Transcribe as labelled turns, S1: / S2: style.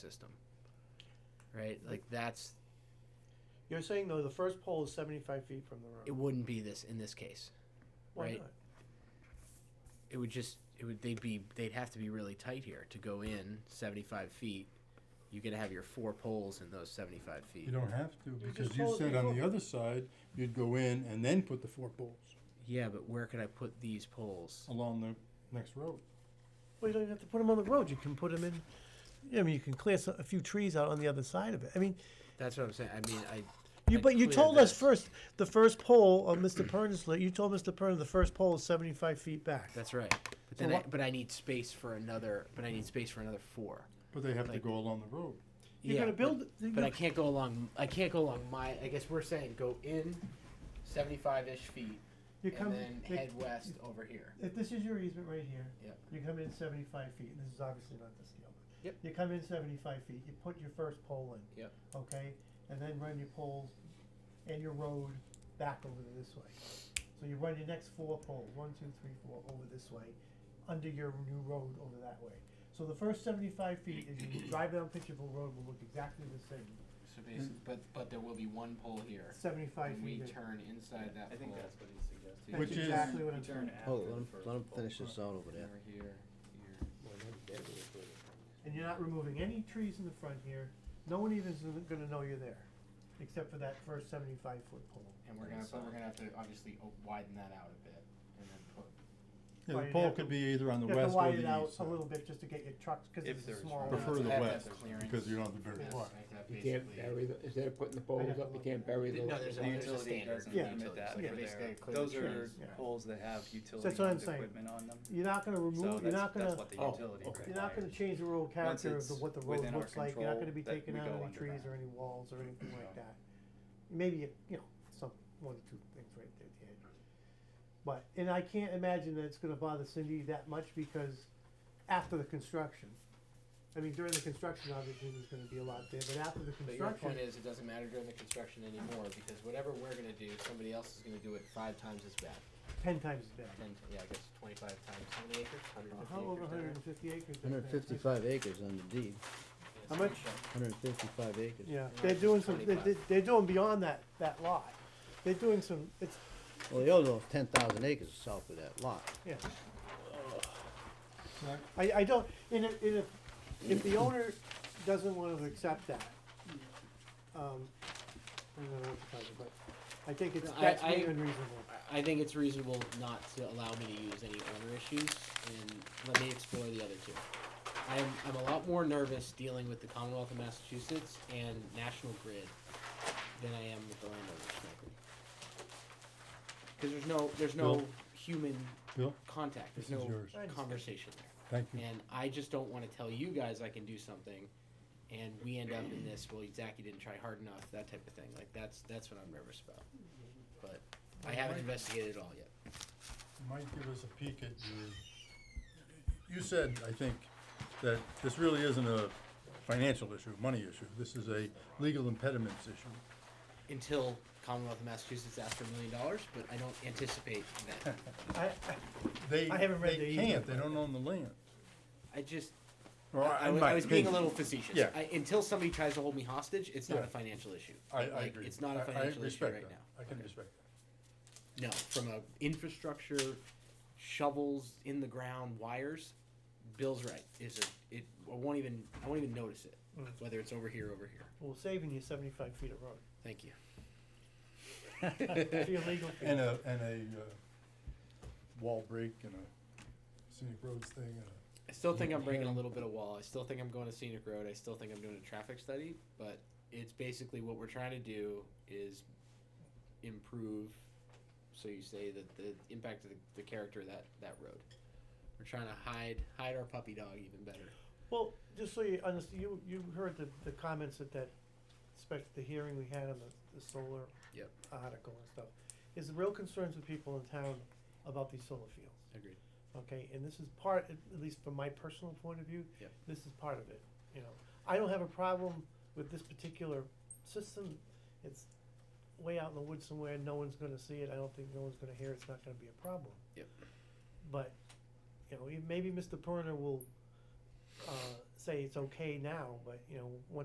S1: system. Right? Like that's
S2: You're saying though the first pole is 75 feet from the road.
S1: it wouldn't be this in this case.
S2: Why
S1: right.
S2: not?
S1: It would just it would they'd be they'd have to be really tight here to go in seventy five feet. You gotta have your four poles in those seventy five feet.
S3: You don't have to,
S2: just
S3: because you
S2: hold-
S3: said
S2: you
S3: on
S2: hold-
S3: the other side, you'd go in and then put the four poles
S1: Yeah, but where could I put these poles?
S3: along the next road.
S2: Well, you don't even have to put them on the road. You can put them in. Yeah, I mean, you can clear so- a few trees out on the other side of it. I mean,
S1: That's what I'm saying. I mean I
S2: you
S1: I
S2: but you
S1: cleared
S2: told us
S1: this.
S2: first the first pole of Mr. Pern's li- You told Mr. Pern the first pole is 75 feet back.
S1: That's right. But
S2: So
S1: then I,
S2: what-
S1: but I need space for another but I need space for another four.
S3: But they have to
S1: Like-
S3: go along the road.
S2: You're
S1: Yeah,
S2: gonna
S1: but-
S2: build.
S1: But I can't go along. I can't go along my. I guess we're saying go in, seventy-five ish feet,
S2: you come.
S1: and then
S2: you-
S1: head west over here.
S2: If this is your easement right here,
S1: Yep.
S2: you come in seventy-five feet, this is obviously not the scale. but
S1: Yep.
S2: You come in seventy-five feet, you put your first pole in.
S1: Yep.
S2: Okay, and then run your poles and your road back over this way. So you run your next four poles, one, two, three, four, over this way, under your new road over that way. So the first seventy-five feet, as you drive down Pitcherville Road, will look exactly the same,
S1: So basically, but but there will be one pole here.
S2: seventy-five
S1: and we
S2: feet. in.
S1: turn inside that
S4: I think
S1: pole.
S4: that's what he's suggesting.
S2: That's
S3: Which is-
S2: Exactly what I'm
S4: You turn
S2: saying.
S4: after
S5: Hold, Oh, let
S4: the
S5: him,
S4: first
S5: let him
S4: pole.
S5: finish this out over
S1: Over
S5: there.
S1: here, here.
S2: And you're not removing any trees in the front here. No one even is gonna know you're there, except for that first seventy-five foot pole.
S1: And we're
S4: And
S1: gonna
S4: so-
S1: but we're gonna have to obviously o- widen that out a bit, and then put.
S3: Yeah,
S2: Well,
S3: the
S2: you'd
S3: pole
S2: have to-
S3: could be either on the
S2: You have
S3: west
S2: to
S3: or
S2: widen
S3: the
S2: it out
S3: east.
S2: a
S3: side.
S2: little bit just to get your trucks, cause
S4: If
S2: it's a
S4: there's
S2: small.
S4: room.
S2: lot.
S3: Prefer the
S1: Have that
S3: west,
S1: clearance.
S3: because you don't have the big
S1: Yes,
S3: lot.
S1: I think that
S6: You can't
S1: basically-
S6: bury, the- instead of putting the poles up, you can't bury
S1: No,
S6: those.
S1: there's a, there's
S4: The
S1: a
S4: utility
S1: standard.
S4: doesn't
S2: Yeah.
S4: limit that
S1: Yeah.
S4: for
S1: Basically,
S4: their,
S1: clear
S4: those
S1: the
S4: are
S1: trees.
S2: Yeah.
S4: poles that have
S2: That's what I'm
S4: utility-owned
S2: saying.
S4: equipment on them.
S2: You're not gonna
S4: So
S2: remove, you're
S4: that's,
S2: not
S4: that's
S2: gonna,
S4: what the
S3: Oh,
S4: utility
S3: okay.
S2: you're not gonna
S4: requires.
S2: change the road character of the,
S4: it's
S2: what the road
S4: within our
S2: looks like. You're not gonna be
S4: control, that
S2: taking
S4: we
S2: out
S4: go
S2: any
S4: under
S2: trees
S4: that.
S2: or any walls or anything like
S4: No.
S2: that. Maybe, you you know, some, one or two things right there at the edge. But, and I can't imagine that it's gonna bother Cindy that much because after the construction, I mean, during the construction, obviously, there's gonna be a lot there, but after the
S1: But your
S2: construction,
S1: point is, it doesn't matter during the construction anymore because whatever we're gonna do, somebody else is gonna do it five times as bad.
S2: ten times as bad.
S1: Ten, yeah, I guess twenty-five times how many acres? Hundred and
S2: How
S1: fifty
S2: over
S1: acres.
S2: hundred
S1: down
S2: and fifty acres? up there?
S5: Hundred fifty-five acres on the deed,
S1: there?
S2: How much?
S5: hundred fifty-five acres.
S2: Yeah,
S1: Yeah,
S2: they're doing some, they-
S1: 25.
S2: they- they're doing beyond that, that lot. They're doing some, it's,
S5: Well, the other ten thousand acres south of that lot.
S2: yeah, Uh,
S3: Right.
S2: I, I don't, and if, and if, if the owner doesn't wanna accept that, um, I don't know what to tell you, but I think it's,
S1: No, I-
S2: that's
S1: I-
S2: really unreasonable.
S1: I- I think it's reasonable not to allow me to use any owner issues, and let me explore the other two. I'm, I'm a lot more nervous dealing with the Commonwealth of Massachusetts and National Grid than I am with the landowners, frankly. Because there's no, there's no
S3: Bill?
S1: human
S3: Bill,
S1: contact, there's
S3: This is
S1: no
S3: yours.
S2: I understand.
S1: conversation there.
S3: thank you.
S1: And I just don't want to tell you guys I can do something, and we end up in this. Well, Zach, you didn't try hard enough. That type of thing. Like that's that's what I'm nervous about. But I haven't investigated it all yet.
S3: might give us a peek at your, you said, I think, that this really isn't a financial issue, money issue. This is a legal impediments issue.
S1: Until Commonwealth of Massachusetts asked for a million dollars, but I don't anticipate that.
S2: I,
S3: They,
S2: I haven't read the
S3: they
S2: easement,
S3: can't, they don't own the land.
S1: I just
S3: Or
S1: I, I
S3: in
S1: was,
S3: my
S1: I was being a
S3: opinion.
S1: little facetious.
S3: Yeah.
S1: I, until somebody tries to hold me hostage, it's not
S3: Yeah.
S1: a financial issue.
S3: I, I
S1: Like,
S3: agree.
S1: It's not
S3: I-
S1: a
S3: I
S1: financial issue
S3: respect
S1: right
S3: that.
S1: now.
S3: I can respect that.
S1: No, from a infrastructure, shovels in the ground, wires. Bill's right. Is a it? I won't even I won't even notice it.
S2: Mm.
S1: Whether it's over here, or over here.
S2: well, saving you seventy-five feet of road,
S1: Thank you.
S2: it's illegal.
S3: And a, and a, uh, wall break and a scenic roads thing and a,
S1: I still think I'm breaking a little bit of wall. I still think I'm going to scenic road. I still think I'm doing a traffic study. But it's basically what we're trying to do is improve. So you say that the impact of the, the character of that that road. We're trying to hide hide our puppy dog even better.
S2: Well, just so you understand, you, you heard the, the comments at that, especially the hearing we had on the, the solar.
S1: Yep.
S2: Article and stuff, is the real concerns with people in town about these solar fields,
S1: Agreed.
S2: okay? And this is part, at at least from my personal point of view,
S1: Yep.
S2: this is part of it, you know? I don't have a problem with this particular system, it's way out in the woods somewhere, no one's gonna see it, I don't think no one's gonna hear, it. it's not gonna be a problem.
S1: Yep.
S2: But, you know, e- maybe Mr. Perner will, uh, say it's okay now, but, you know, once